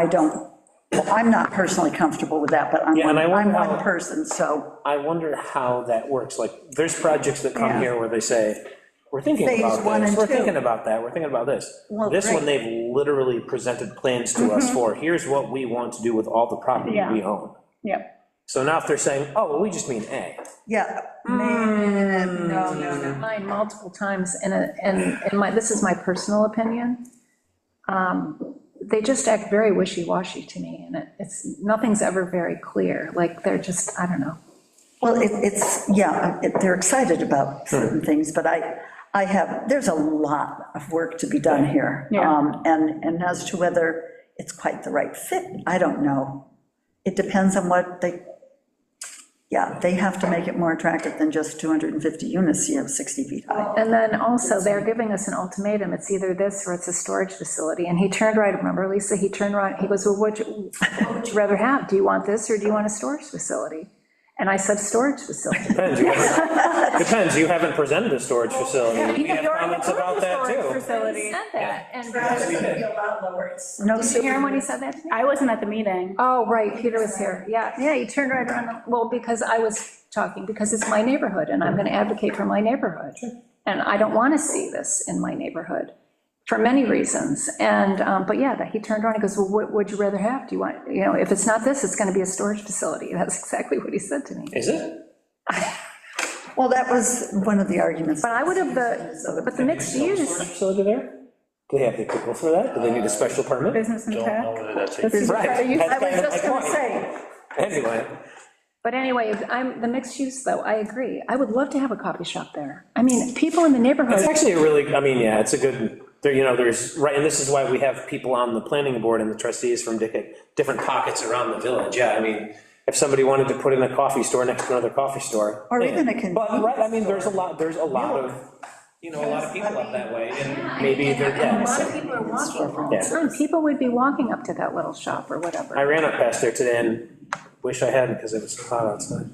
I don't, I'm not personally comfortable with that, but I'm, Yeah, one- and I won't I'm one know. person, so I wonder how that works, like, there's projects that come Yeah. here where they say, we're thinking Phase about one this, and we're two. thinking about that, we're thinking about this. Well, This great. Mm-hmm. one, they've literally presented plans to us for, here's what we want to do with all the property Yeah. we own. yeah, So now if they're saying, oh, well, we just mean A, yeah. Hmm. man, No, no, no. mine multiple times, and, uh, and, and my, this is my personal opinion. Um, They just act very wishy-washy to me, and it, it's, nothing's ever very clear, like, they're just, I don't know. Well, it, it's, yeah, it- they're excited about certain things, but I, I have, there's a lot of work to be done here. Yeah. Um, And, and as to whether it's quite the right fit, I don't know. It depends on what they, yeah, they have to make it more attractive than just 250 units, you know, 60 feet high. And then also, they're giving us an ultimatum, it's either this or it's a storage facility, and he turned right, remember, Lisa, he turned right, he goes, well, what you- what would you rather have? Do you want this, or do you want a storage facility? And I said, storage facility. depends, you haven't- depends, you haven't presented a storage facility, we have comments about that too. He said that, and- No, Did you hear him when he said that to me? I wasn't at the meeting. Oh, right, Peter was here, yeah, yeah, you turned right around, the- well, because I was talking, because it's my neighborhood, and I'm gonna advocate for my neighborhood. And I don't wanna see this in my neighborhood, for many reasons, and, um, but yeah, that he turned around, he goes, well, what would you rather have? Do you want, you know, if it's not this, it's gonna be a storage facility, that's exactly what he said to me. Is it? well, that was one of the arguments. But I would have the, but the mixed Storage use, facility there? Do they have the approval for that? Do they need a special permit? Business and Don't know tech. whether that's a This is- Right. I was just going to say, Anyway, but anyway, I'm, the mixed use, though, I agree, I would love to have a coffee shop there. I mean, people in the neighborhood. It's actually a really, I mean, yeah, it's a good, there, you know, there's, right, and this is why we have people on the planning board and the trustees from different, different pockets around the village, yeah, I mean, if somebody wanted to put in a coffee store next to another coffee store. Or yeah. even a convenience But, right, I mean, there's a lot, there's a lot of, you know, a lot of people up that way, and maybe they're, yeah. so- people are walking. Yeah. Time, Mm, people would be walking up to that little shop or I whatever. ran up past there today and wish I hadn't, because it was so hot outside.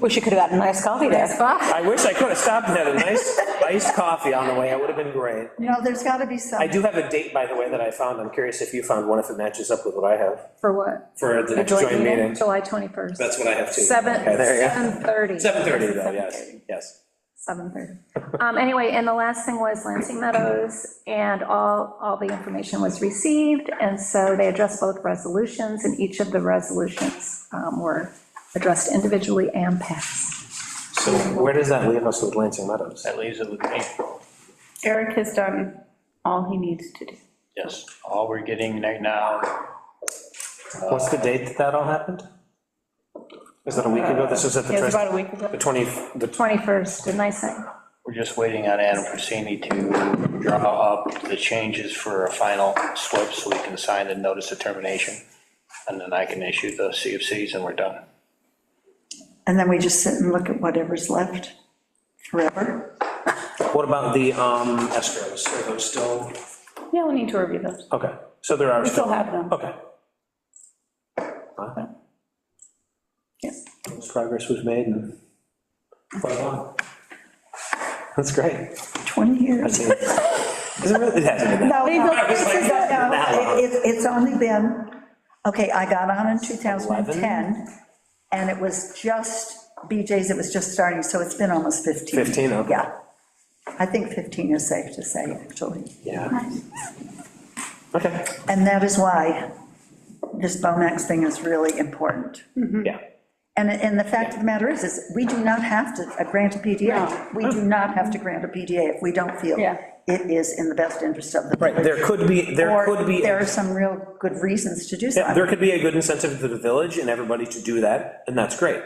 Wish you could have gotten nice coffee there. I wish I could have stopped and had a nice iced coffee on the way, it would have been great. you know, there's got to be I some, do have a date, by the way, that I found, I'm curious if you found one, if it matches up with what I have. For what? For the next joint joint meeting? meeting. July 21st. That's what I have too. Seven, Okay, there you go. 7:30. 7:30 though, yes, yes. 7:30. Um, Anyway, and the last thing was Lansing Meadows, and all, all the information was received, and so they addressed both resolutions, and each of the resolutions um, were addressed individually and passed. So where does that leave us with Lansing Meadows? That leaves it with me, Eric has done all he needs to do. yes. All we're getting right now, What's the date that that all happened? Is that a week ago? This was at the. It was trust- about a week ago. The 20, the, 21st, didn't I say? we're just waiting on Adam Persini to draw up the changes for a final SWIP so we can sign the notice of termination. And then I can issue the CFCs and we're done. and then we just sit and look at whatever's left forever. what about the um, escrows? Are those still, Yeah, we'll need to review those. okay, so there are We still, still have them. okay. Alright. Progress was made and. That's great. 20 years. Is it really, it hasn't been No, that no, I was like, this is- no, that it- long. it- It's only been, okay, I got on in 2010, and it was just, BJ's, it was just starting, so it's been almost 15. 15, okay. Yeah. I think 15 is safe to say, actually. Yeah. Okay, And that is why this Bomax thing is really important. yeah. And, and the fact of the matter is, is we do not have to uh, grant a PDA. We do not have to grant a PDA if we don't feel Oh. Mm-hmm. Yeah. it is in the best interest of the. Right, there could be, there Or could be, There are some real good reasons to do so. yeah, there could be a good incentive to the village and everybody to do that, and that's great.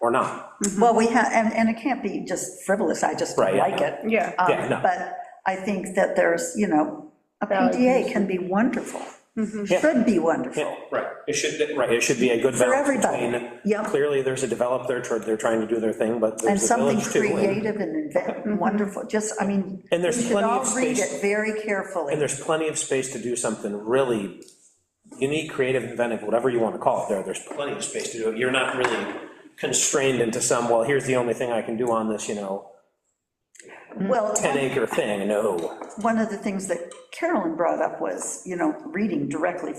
Or not. Well, we have, and, and it can't be just frivolous, I just Right, don't yeah. like it. Yeah. Um, Yeah, no. But I think that there's, you know, a PDA can be wonderful, Mm-hmm. should be wonderful. Right, it should, right, it should be a good balance everybody, between, yeah. clearly, there's a developer, tr- they're trying to do their thing, but And there's the something village too. and- creative and Mm-hmm. invent, wonderful, just, I mean. And there's plenty of We should all read space- it very carefully. And there's plenty of space to do something really unique, creative, inventive, whatever you want to call it there, there's plenty of space to do it. You're not really constrained into some, well, here's the only thing I can do on this, you know, Well, 10 acre thing, no. one of the things that Carolyn brought up was, you know, reading directly